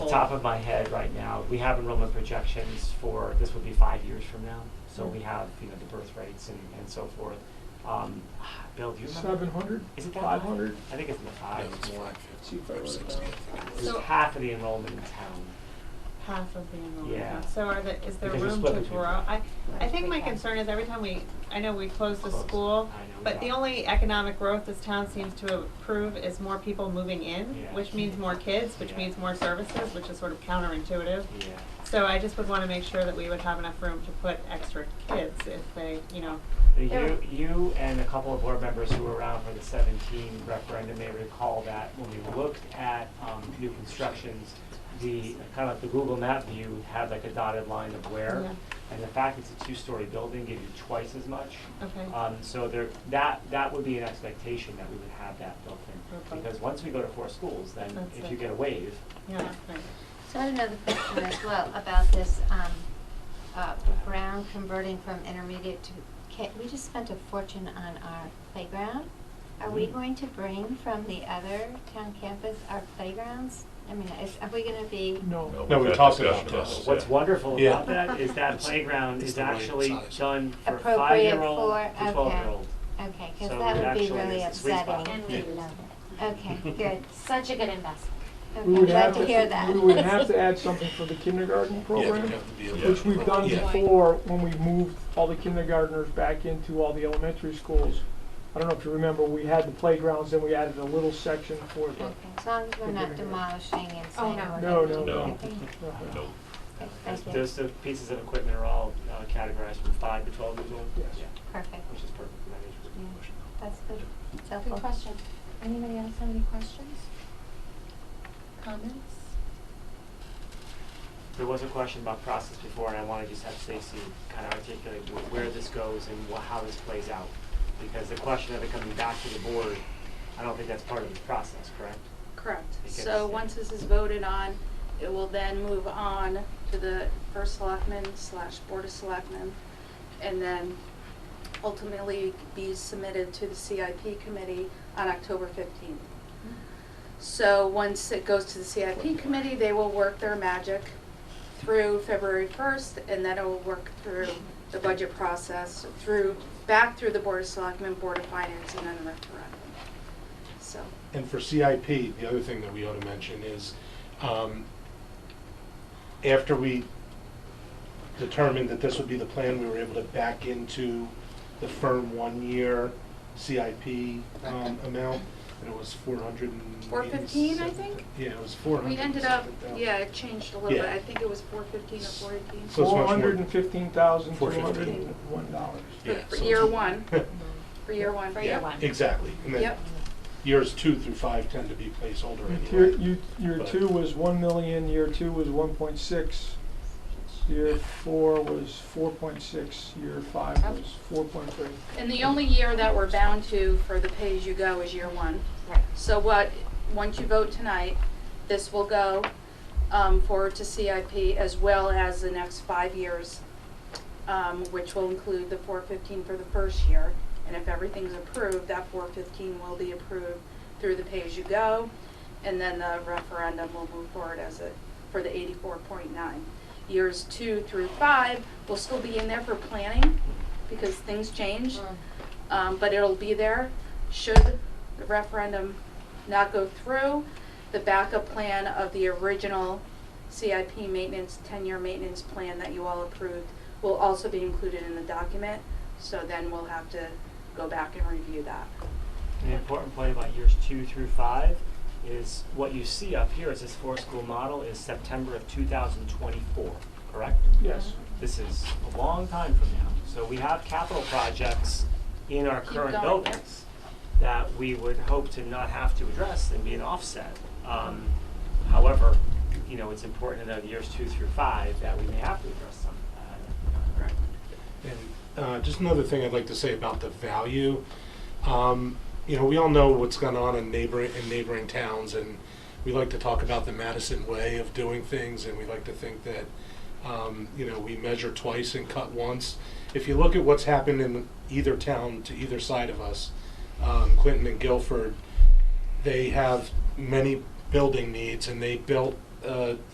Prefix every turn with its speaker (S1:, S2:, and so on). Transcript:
S1: top of my head right now, we have enrollment projections for, this would be five years from now. So we have, you know, the birth rates and, and so forth. Um, Bill, do you remember?
S2: Seven hundred?
S1: Is it that high?
S2: Five hundred?
S1: I think it's in the fives more.
S2: See if I wrote it down.
S1: It's
S3: So-
S1: half of the enrollment in town.
S3: half of the enrollment.
S1: Yeah.
S3: So are there, is there
S1: Because you're
S3: room to
S1: splitting people.
S3: grow? I, I think my
S4: Okay.
S3: concern is every time we, I know we close the
S1: Close.
S3: school,
S1: I know,
S3: but the
S1: yeah.
S3: only economic growth this town seems to approve is more people moving in,
S1: Yeah.
S3: which means more kids, which
S1: Yeah.
S3: means more services, which is sort of counterintuitive.
S1: Yeah.
S3: So I just would wanna make sure that we would have enough room to put extra kids if they, you know,
S1: You, you and a couple of board members who were around for the seventeen referendum may recall that when we looked at, um, new constructions, the, kind of like the Google map view had like a dotted line of where.
S3: Yeah.
S1: And the fact it's a two-story building gives you twice as much.
S3: okay.
S1: Um, so there, that, that would be an expectation that we would have that built in.
S3: Okay.
S1: Because once we go to four schools, then
S3: That's
S1: if
S3: it.
S1: you get a wave,
S3: Yeah, right.
S4: So I had another question as well about this, um, uh, Brown converting from intermediate to, K. we just spent a fortune on our playground. Are we
S2: Mm-hmm.
S1: Mm.
S4: going to bring from the other town campus our playgrounds? I mean, is, are we gonna be?
S2: No.
S5: No,
S6: we've
S5: we
S6: had
S5: talked about
S6: discussion about
S5: this.
S6: this,
S1: What's
S6: yeah.
S1: wonderful
S5: Yeah.
S1: about that is that
S6: It's-
S1: playground
S6: it's
S1: is
S6: the right
S1: actually
S6: size.
S1: done for
S4: Appropriate
S1: five-year-old
S4: for-
S1: to
S4: okay.
S1: twelve-year-old.
S4: Okay, cause
S1: So it
S4: that would be
S1: actually
S4: really
S1: is a sweet spot.
S4: upsetting.
S1: And
S7: we
S4: Yeah.
S7: love
S4: Okay, good.
S7: Such a good investment.
S2: We
S4: Okay, I'm
S2: would
S4: glad
S2: have
S4: to hear that.
S2: We would have to add something for the kindergarten program.
S6: Yeah.
S2: Which we've done
S6: Yeah.
S2: before when we moved all the kindergartners back into all the elementary schools. I don't know if you remember, we had the playgrounds and we added a little section for the.
S4: Okay, as long as we're not demolishing and saying.
S7: Oh, no.
S4: we're
S2: No,
S4: gonna
S2: no,
S4: do
S6: no.
S4: everything.
S2: Uh-huh.
S6: No.
S4: Okay, Thank you.
S1: Those, those pieces of equipment are all uh, categorized from five to twelve years old.
S2: Yes.
S1: Yeah,
S4: Perfect.
S1: Which is perfect for that age
S4: Yeah.
S1: group.
S4: That's good. It's helpful.
S7: Good question. Anybody else have any questions? Comments?
S1: There was a question about process before, and I want to just have Stacy kind of articulate wh- where this goes and wha- how this plays out. Because the question of it coming back to the board, I don't think that's part of this process, correct?
S8: Correct.
S1: It gets-
S8: So once this is voted on, it will then move on to the first selectman slash board of selectmen, and then ultimately be submitted to the CIP committee on October fifteenth. So once it goes to the CIP committee, they will work their magic through February first, and then it will work through the budget process, through, back through the board of selectmen, board of finance, and then the referendum. So.
S9: And for CIP, the other thing that we ought to mention is, um, after we determined that this would be the plan, we were able to back into the firm one-year CIP um, amount, and it was four hundred and.
S8: Four fifteen, I think?
S9: Yeah, it was four hundred.
S8: We ended up, yeah, it changed a little bit. I think it was four fifteen or four
S9: So
S8: eighteen.
S9: it's much
S2: Four
S9: more-
S2: hundred and fifteen thousand, two
S9: Four
S2: hundred
S9: fifteen.
S2: and one dollars.
S9: Yeah,
S8: For
S9: so
S8: year
S9: it's-
S8: one, for year one.
S7: For
S9: Yeah,
S7: year one.
S9: Exactly, and then
S8: Yep.
S9: years two through five tend to be placeholder
S2: Year,
S9: anyway.
S2: you, year
S9: But-
S2: two was one million, year two was one point six, year four was four point six, year five
S8: Okay.
S2: was four point three.
S8: And the only year that we're bound to for the pay-as-you-go is year one.
S7: Right.
S8: So what, once you vote tonight, this will go um, forward to CIP as well as the next five years, um, which will include the four fifteen for the first year. And if everything's approved, that four fifteen will be approved through the pay-as-you-go. And then the referendum will move forward as it, for the eighty-four point nine. Years two through five will still be in there for planning because things change
S4: Mm-hmm.
S8: um, but it'll be there. Should the referendum not go through, the backup plan of the original CIP maintenance, ten-year maintenance plan that you all approved will also be included in the document, so then we'll have to go back and review that.
S1: An important point about years two through five is what you see up here is this four-school model is September of two thousand twenty-four, correct?
S2: Yes.
S1: This is a long time from now. So we have capital projects in our
S8: Keep
S1: current
S8: going,
S1: buildings that we would hope to not have to address and be an offset. Um, however, you know, it's important in the years two through five that we may have to address some. Uh,
S9: And uh, just another thing I'd like to say about the value. Um, you know, we all know what's gone on in neighboring in neighboring towns, and we like to talk about the Madison way of doing things, and we like to think that um, you know we measure twice and cut once. If you look at what's happened in either town to either side of us, um, Clinton and Guilford, they have many building needs, and they built. Uh,